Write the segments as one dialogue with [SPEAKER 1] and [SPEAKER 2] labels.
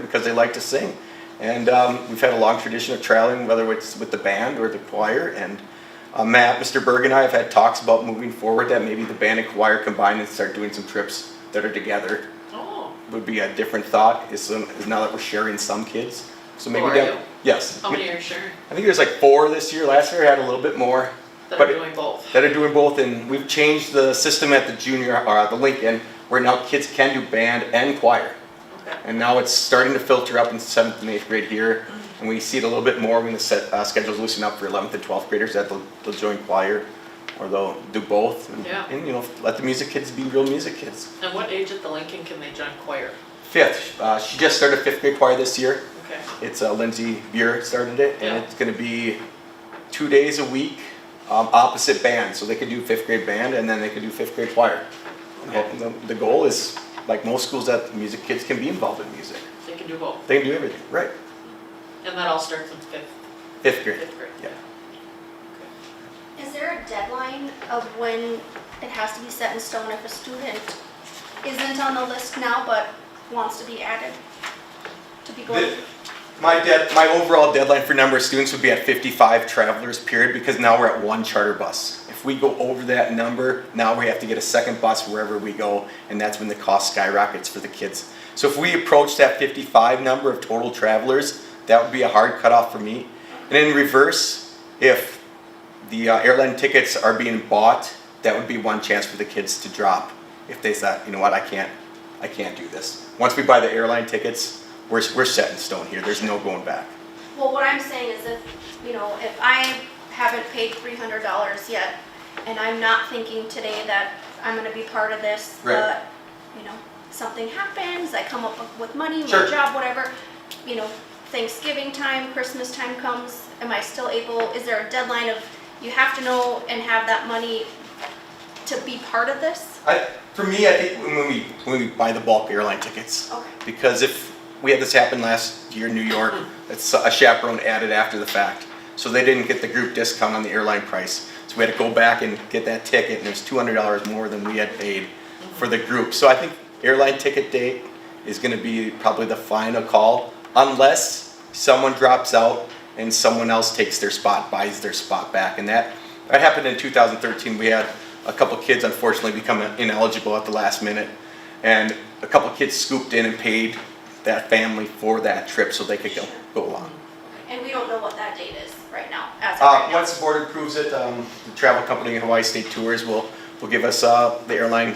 [SPEAKER 1] because they like to sing. And um, we've had a long tradition of traveling, whether it's with the band or the choir. And uh, Matt, Mr. Berg, and I have had talks about moving forward that maybe the band and choir combine and start doing some trips that are together.
[SPEAKER 2] Oh,
[SPEAKER 1] Would be a different thought. Is, is now that we're sharing some kids, so maybe
[SPEAKER 2] Who are
[SPEAKER 1] down-
[SPEAKER 2] you?
[SPEAKER 1] yes,
[SPEAKER 2] how many are Oh, sure
[SPEAKER 1] I think there's like four this year. Last year I had a little bit more.
[SPEAKER 2] that
[SPEAKER 1] But-
[SPEAKER 2] are doing both?
[SPEAKER 1] that are doing both, and we've changed the system at the junior, or at the Lincoln, where now kids can do band and choir.
[SPEAKER 2] Okay.
[SPEAKER 1] And now it's starting to filter up in seventh and eighth grade here, and we see it a little bit more when the set, uh, schedules loosen up for eleventh and twelfth graders that they'll, they'll join choir, or they'll do both. and-
[SPEAKER 2] Yeah.
[SPEAKER 1] And, you know, let the music kids be real music kids.
[SPEAKER 2] And what age at the Lincoln can they join choir?
[SPEAKER 1] Fifth, uh, she just started fifth grade choir this year.
[SPEAKER 2] Okay,
[SPEAKER 1] It's uh, Lindsay Buer started it, and
[SPEAKER 2] Yeah.
[SPEAKER 1] it's going to be two days a week, um, opposite band. So they could do fifth grade band, and then they could do fifth grade choir. And
[SPEAKER 2] Okay.
[SPEAKER 1] The, the goal is, like most schools, that music kids can be involved in music.
[SPEAKER 2] they can do both.
[SPEAKER 1] They can do everything, right?
[SPEAKER 2] And that all starts in fifth,
[SPEAKER 1] Fifth grade.
[SPEAKER 2] fifth grade.
[SPEAKER 1] Yeah.
[SPEAKER 3] Is there a deadline of when it has to be set in stone if a student isn't on the list now but wants to be added? To be going,
[SPEAKER 1] The- My dead, my overall deadline for number of students would be at 55 travelers period because now we're at one charter bus. If we go over that number, now we have to get a second bus wherever we go, and that's when the cost skyrockets for the kids. So if we approach that 55 number of total travelers, that would be a hard cutoff for me. And in reverse, if the uh, airline tickets are being bought, that would be one chance for the kids to drop if they thought, you know what, I can't, I can't do this. Once we buy the airline tickets, we're, we're set in stone here. There's no going back.
[SPEAKER 3] well, what I'm saying is if, you know, if I haven't paid three hundred dollars yet and I'm not thinking today that I'm gonna be part of this,
[SPEAKER 1] Right.
[SPEAKER 3] but, you know, something happens, I come up with money, my
[SPEAKER 1] Sure.
[SPEAKER 3] job, whatever, you know, Thanksgiving time, Christmas time comes, am I still able, is there a deadline of, you have to know and have that money to be part of this?
[SPEAKER 1] I, for me, I think when we when we buy the bulk airline tickets,
[SPEAKER 3] Okay.
[SPEAKER 1] because if we had this happen last year in New York, it's a chaperone added after the fact, so they didn't get the group discount on the airline price, so we had to go back and get that ticket, and it was two hundred dollars more than we had paid for the group. So I think airline ticket date is going to be probably the final call, unless someone drops out and someone else takes their spot, buys their spot back, and that that happened in 2013. We had a couple kids unfortunately become ineligible at the last minute, and a couple kids scooped in and paid that family for that trip so they could go, go along.
[SPEAKER 3] And we don't know what that date is right now, as of
[SPEAKER 1] Uh,
[SPEAKER 3] right now.
[SPEAKER 1] once the board approves it, um, the travel company Hawaii State Tours will, will give us, uh, the airline,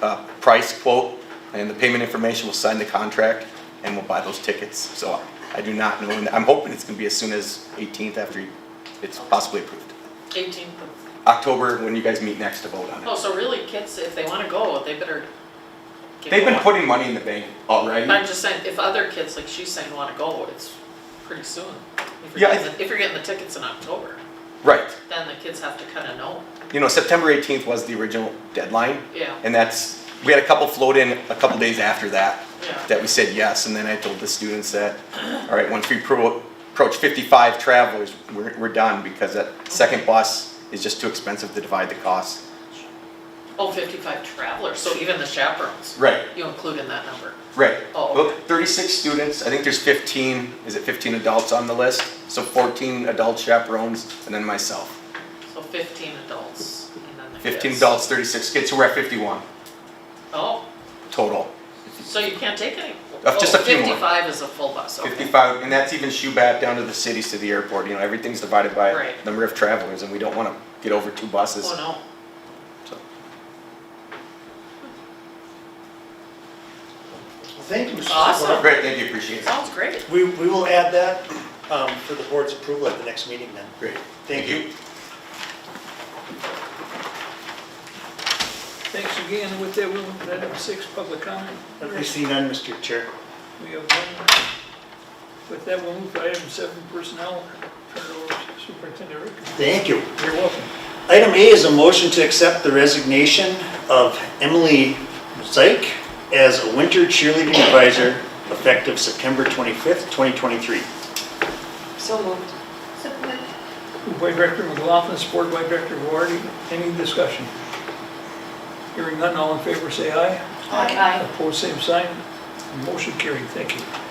[SPEAKER 1] uh, price quote and the payment information, we'll sign the contract and we'll buy those tickets. So I do not know, and I'm hoping it's gonna be as soon as 18th after it's possibly approved.
[SPEAKER 2] Eighteenth of,
[SPEAKER 1] October, when you guys meet next to vote on it.
[SPEAKER 2] oh, so really kids, if they wanna go, they better get
[SPEAKER 1] They've been
[SPEAKER 2] going.
[SPEAKER 1] putting money in the bank already.
[SPEAKER 2] I'm just saying, if other kids, like she's saying, wanna go, it's pretty soon. If
[SPEAKER 1] Yeah,
[SPEAKER 2] you're
[SPEAKER 1] I
[SPEAKER 2] getting, the- if you're getting the tickets in October,
[SPEAKER 1] Right.
[SPEAKER 2] then the kids have to kinda know,
[SPEAKER 1] You know, September 18th was the original deadline,
[SPEAKER 2] yeah,
[SPEAKER 1] and that's, we had a couple float in a couple days after that,
[SPEAKER 2] yeah.
[SPEAKER 1] that we said yes, and then I told the students that, all right, once we pro- approach 55 travelers, we're, we're done, because that second bus is just too expensive to divide the cost.
[SPEAKER 2] Oh, fifty-five travelers, so even the chaperones,
[SPEAKER 1] Right.
[SPEAKER 2] you include in that number.
[SPEAKER 1] Right.
[SPEAKER 2] Oh,
[SPEAKER 1] Well,
[SPEAKER 2] okay.
[SPEAKER 1] 36 students, I think there's 15, is it 15 adults on the list? So 14 adult chaperones, and then myself.
[SPEAKER 2] So fifteen adults and then the kids.
[SPEAKER 1] 15 adults, 36 kids, so we're at 51
[SPEAKER 2] Oh,
[SPEAKER 1] total.
[SPEAKER 2] so you can't take any,
[SPEAKER 1] Uh, just
[SPEAKER 2] oh,
[SPEAKER 1] a few more.
[SPEAKER 2] fifty-five is a full bus, okay.
[SPEAKER 1] 55, and that's even Shubat down to the cities to the airport, you know, everything's divided by
[SPEAKER 2] Right.
[SPEAKER 1] number of travelers, and we don't wanna get over two buses.
[SPEAKER 2] Oh, no.
[SPEAKER 4] Well, Thank you, Mr.
[SPEAKER 2] Awesome.
[SPEAKER 4] Sephora.
[SPEAKER 1] Great, thank you, appreciate it.
[SPEAKER 2] Sounds great.
[SPEAKER 4] We, we will add that um, for the board's approval at the next meeting then.
[SPEAKER 1] Great.
[SPEAKER 4] Thank you.
[SPEAKER 5] Thanks again. With that, we'll move to item six, public comment.
[SPEAKER 4] Let me see none, Mr. Chair.
[SPEAKER 5] We have one. With that, we'll move to item seven, personnel. Turn it over to Superintendent Rick.
[SPEAKER 4] Thank you.
[SPEAKER 5] You're welcome.
[SPEAKER 4] Item A is a motion to accept the resignation of Emily Zeig as a winter cheerleading advisor effective September 25th, 2023.
[SPEAKER 2] So moved.
[SPEAKER 3] So we-
[SPEAKER 5] Moved by Director McLaughlin, supported by Director Wardy. Any discussion? Hearing none, all in favor, say aye.
[SPEAKER 4] Aye.
[SPEAKER 5] Opposed, same sign. Motion carried. Thank you.